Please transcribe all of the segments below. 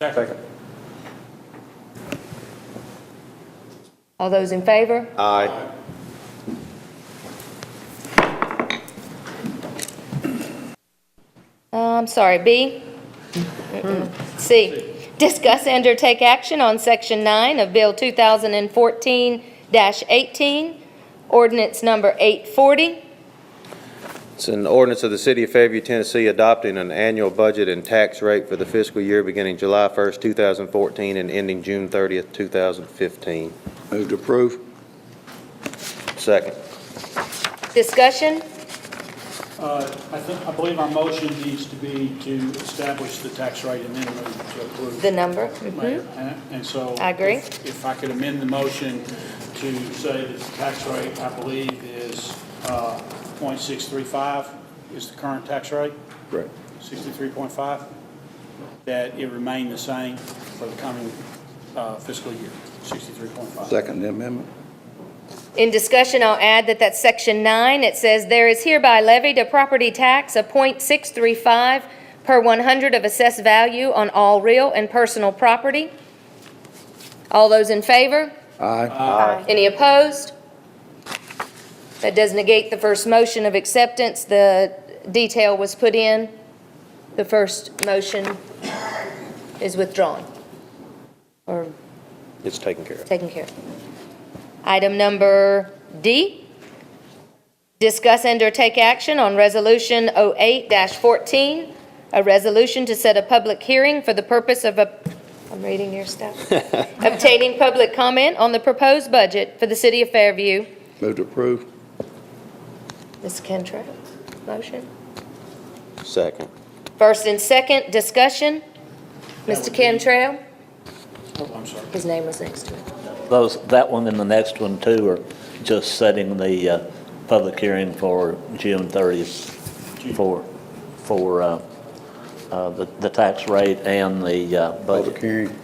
Second. All those in favor? Aye. Um, sorry, B? C, discuss and or take action on Section 9 of Bill 2014-18, ordinance number 840. It's an ordinance of the City of Fairview, Tennessee, adopting an annual budget and tax rate for the fiscal year beginning July 1st, 2014, and ending June 30th, 2015. Move to approve. Second. Discussion? Uh, I think, I believe our motion needs to be to establish the tax rate and then move to approve. The number? Mayor. And- And so. I agree. if- If I could amend the motion to say that the tax rate, I believe, is uh, .635 is the current tax rate, Right. 63.5, that it remain the same for the coming uh, fiscal year, 63.5. Second amendment. In discussion, I'll add that that's section nine. It says, "There is hereby levied a property tax of .635 per 100 of assessed value on all real and personal property." All those in favor? Aye. Aye. Any opposed? That does negate the first motion of acceptance. The detail was put in. The first motion is withdrawn or It's taken care of. taken care of. Item number D, discuss and or take action on Resolution 08-14, a resolution to set a public hearing for the purpose of, a- I'm reading your stuff, obtaining public comment on the proposed budget for the city of Fairview. Move to approve. Ms. Kentra, motion? Second. First and second, discussion. Mr. Cantrell, Oh, I'm sorry. his name was next to it. Those, that one and the next one too are just setting the uh, public hearing for June 30th for, for uh, uh, the the tax rate and the uh, Public budget. hearing.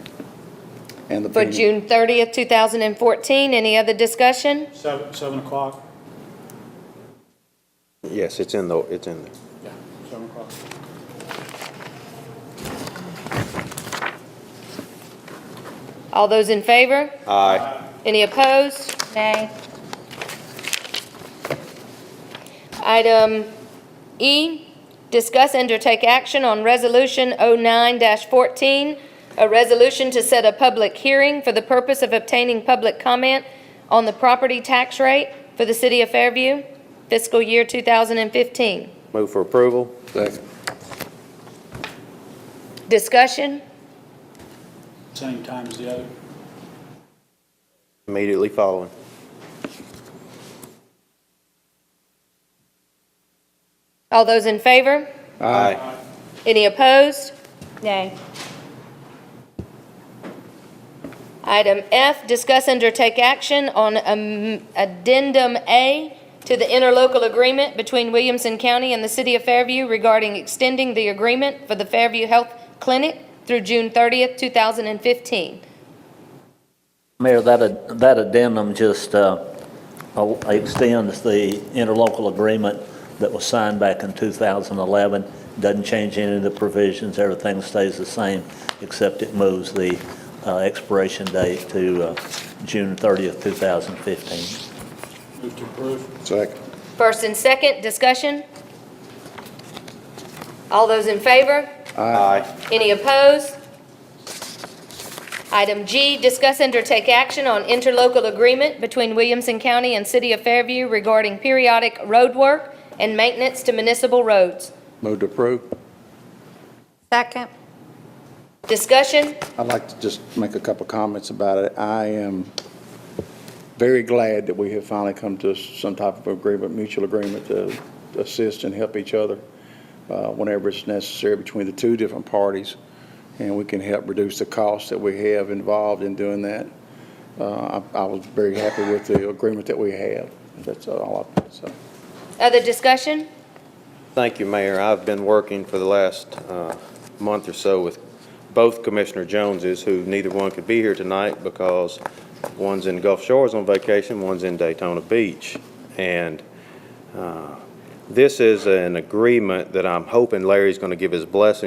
And the For pending. June 30th, 2014, any other discussion? Seven, seven o'clock? Yes, it's in the, it's in there. Yeah, seven o'clock. All those in favor? Aye. Any opposed? Nay. Item E, discuss and or take action on Resolution 09-14, a resolution to set a public hearing for the purpose of obtaining public comment on the property tax rate for the city of Fairview, fiscal year 2015. Move for approval? Second. Discussion? Same time as the other? Immediately following. All those in favor? Aye. Any opposed? Nay. Item F, discuss and or take action on um, addendum A to the interlocal agreement between Williamson County and the City of Fairview regarding extending the agreement for the Fairview Health Clinic through June 30th, 2015. Mayor, that, ad- that addendum just uh, uh, extends the interlocal agreement that was signed back in 2011. Doesn't change any of the provisions, everything stays the same, except it moves the uh, expiration date to uh, June 30th, 2015. Move to approve? Second. First and second, discussion? All those in favor? Aye. Any opposed? Item G, discuss and or take action on interlocal agreement between Williamson County and City of Fairview regarding periodic roadwork and maintenance to municipal roads. Move to approve. Second. Discussion? I'd like to just make a couple comments about it. I am very glad that we have finally come to some type of agreement, mutual agreement to assist and help each other uh, whenever it's necessary between the two different parties. And we can help reduce the costs that we have involved in doing that. Uh, I I was very happy with the agreement that we have. That's all I, so. Other discussion? Thank you, Mayor. I've been working for the last uh, month or so with both Commissioner Joneses, who neither one could be here tonight because one's in Gulf Shores on vacation, one's in Daytona Beach. And uh, this is an agreement that I'm hoping Larry's going to give his blessing